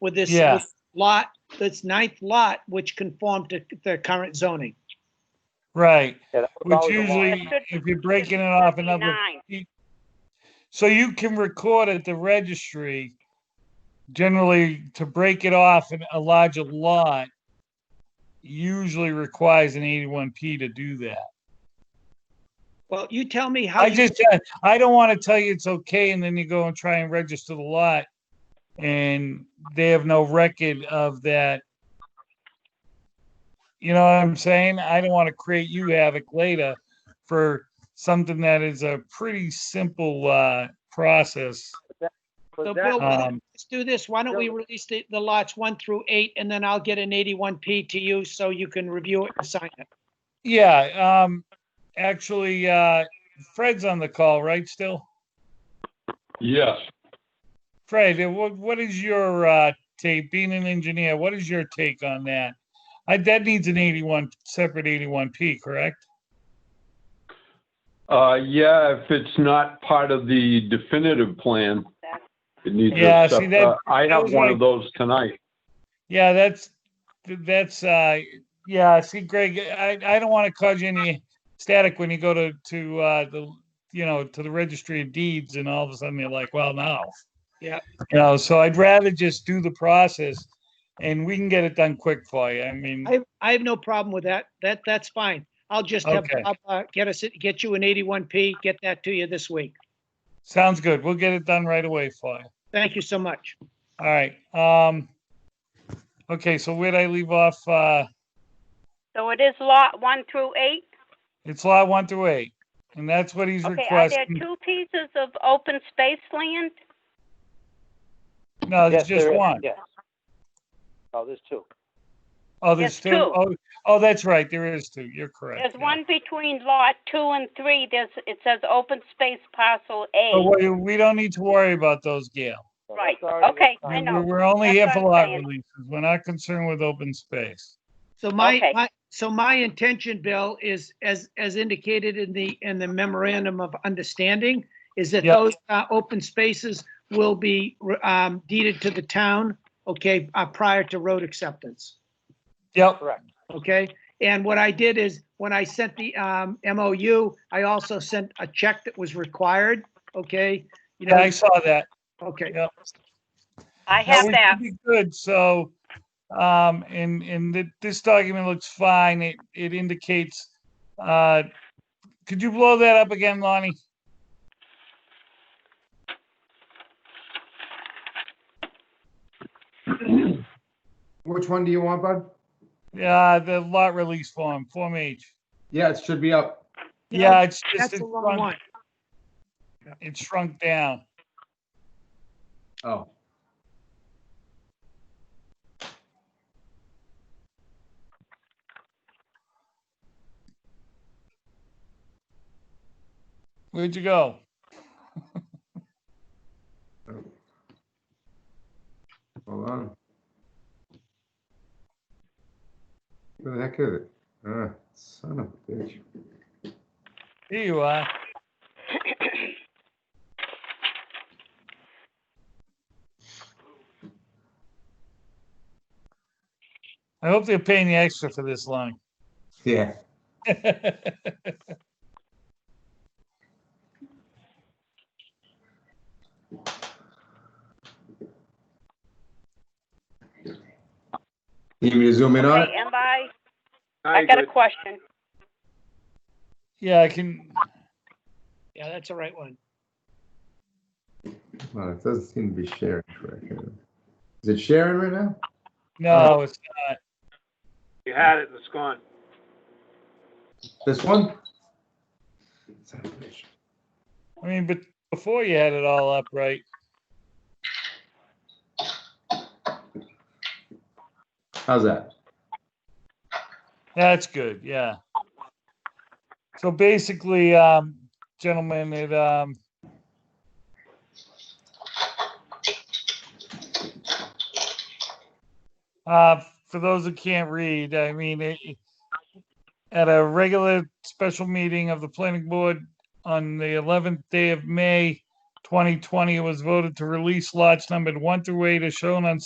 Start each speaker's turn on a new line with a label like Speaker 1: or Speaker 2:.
Speaker 1: with this
Speaker 2: Yeah.
Speaker 1: this lot, this ninth lot, which conformed to the current zoning.
Speaker 2: Right,
Speaker 3: Yeah, that was
Speaker 2: which
Speaker 3: always a lot.
Speaker 2: usually, if you're breaking it off another,
Speaker 4: 39.
Speaker 2: so you can record at the registry. Generally, to break it off in a larger lot usually requires an eighty-one P to do that.
Speaker 1: Well, you tell me how
Speaker 2: I
Speaker 1: you,
Speaker 2: just, uh, I don't want to tell you it's okay and then you go and try and register the lot and they have no record of that. You know what I'm saying? I don't want to create you havoc later for something that is a pretty simple, uh, process.
Speaker 3: But
Speaker 1: So
Speaker 3: that-
Speaker 1: Bill, why
Speaker 2: Um,
Speaker 1: don't- let's do this. Why don't we release the, the lots one through eight and then I'll get an eighty-one P to you so you can review it and sign it.
Speaker 2: yeah, um, actually, uh, Fred's on the call, right, still?
Speaker 5: Yes,
Speaker 2: Fred, eh, what, what is your uh, take? Being an engineer, what is your take on that? I, that needs an 81 separate 81p, correct?
Speaker 5: uh, yeah, if it's not part of the definitive plan, it needs
Speaker 2: Yeah,
Speaker 5: a
Speaker 2: see, that-
Speaker 5: sep- uh I
Speaker 2: that
Speaker 5: have
Speaker 2: was
Speaker 5: one
Speaker 2: my-
Speaker 5: of those tonight.
Speaker 2: Yeah, that's that's uh, yeah. See, Greg, I, I don't want to cause you any static when you go to to uh, the you know to the registry of deeds, and all of a sudden you're like, well, now,
Speaker 1: Yeah.
Speaker 2: you know. So I'd rather just do the process, and we can get it done quick for you. I mean,
Speaker 1: I, I have no problem with that. That, that's fine. I'll just have,
Speaker 2: Okay.
Speaker 1: Bob, uh, get us, get you an eighty-one P, get that to you this week.
Speaker 2: sounds good. We'll get it done right away for you.
Speaker 1: Thank you so much.
Speaker 2: All right. Um, okay, so where'd I leave off? Uh,
Speaker 4: So it is lot one through eight?
Speaker 2: it's lot one through eight, and that's what he's
Speaker 4: Okay, are there
Speaker 2: requesting.
Speaker 4: two pieces of open space land?
Speaker 2: No, it's
Speaker 3: Yes,
Speaker 2: just
Speaker 3: there is,
Speaker 2: one.
Speaker 3: yes. Oh, there's two.
Speaker 2: Oh, there's
Speaker 4: Yes,
Speaker 2: two.
Speaker 4: two.
Speaker 2: Oh, oh, that's right. There is two. You're correct.
Speaker 4: There's
Speaker 2: yeah.
Speaker 4: one between lot two and three, there's, it says open space parcel
Speaker 2: But we,
Speaker 4: A.
Speaker 2: we don't need to worry about those, Gail.
Speaker 3: So
Speaker 4: Right,
Speaker 3: that's already-
Speaker 4: okay, I
Speaker 2: We're,
Speaker 4: know.
Speaker 2: we're only
Speaker 4: That's
Speaker 2: here
Speaker 4: what
Speaker 2: for
Speaker 4: I'm
Speaker 2: lot
Speaker 4: saying.
Speaker 2: releases. We're not concerned with open space.
Speaker 1: So my,
Speaker 4: Okay.
Speaker 1: my, so my intention, Bill, is as, as indicated in the, in the memorandum of understanding, is that
Speaker 2: Yeah.
Speaker 1: those, uh, open spaces will be, um, deeded to the town, okay, uh, prior to road acceptance.
Speaker 2: Yep.
Speaker 3: Correct.
Speaker 1: okay? And what I did is, when I sent the um, MOU, I also sent a check that was required, okay? You
Speaker 2: Yeah,
Speaker 1: know,
Speaker 2: I saw that.
Speaker 1: okay,
Speaker 4: I
Speaker 2: No,
Speaker 4: have
Speaker 2: we
Speaker 4: that.
Speaker 2: should be Good, so, um, and, and th- this document looks fine. It, it indicates, uh, could you blow that up again, Lonnie?
Speaker 6: Which one do you want, bud?
Speaker 2: Yeah, Uh, the lot release form, Form H.
Speaker 6: Yeah, it should be up.
Speaker 2: Yeah, it's just,
Speaker 1: that's
Speaker 2: it
Speaker 1: the wrong one.
Speaker 2: shrunk, it shrunk down.
Speaker 6: Oh.
Speaker 2: Where'd you go?
Speaker 6: Hold on. Where the heck is it? Ah, son of a bitch.
Speaker 2: Here you are. I hope they're paying you extra for this, Lonnie.
Speaker 6: Yeah. You need me to zoom in on it?
Speaker 4: Okay, and I, I got a question.
Speaker 2: Yeah, I can,
Speaker 1: Yeah, that's the right one.
Speaker 6: Well, it doesn't seem to be sharing correctly. Is it sharing right now?
Speaker 2: no, it's
Speaker 7: You had it and it's gone.
Speaker 6: This one? Son of a bitch.
Speaker 2: I mean, but before you had it all up, right?
Speaker 6: How's that?
Speaker 2: That's good, yeah. So basically, um, gentlemen, it, um, uh, for those who can't read, I mean, it, it- at a regular special meeting of the planning board on the eleventh day of May, twenty twenty, it was voted to release lots numbered one through eight as shown on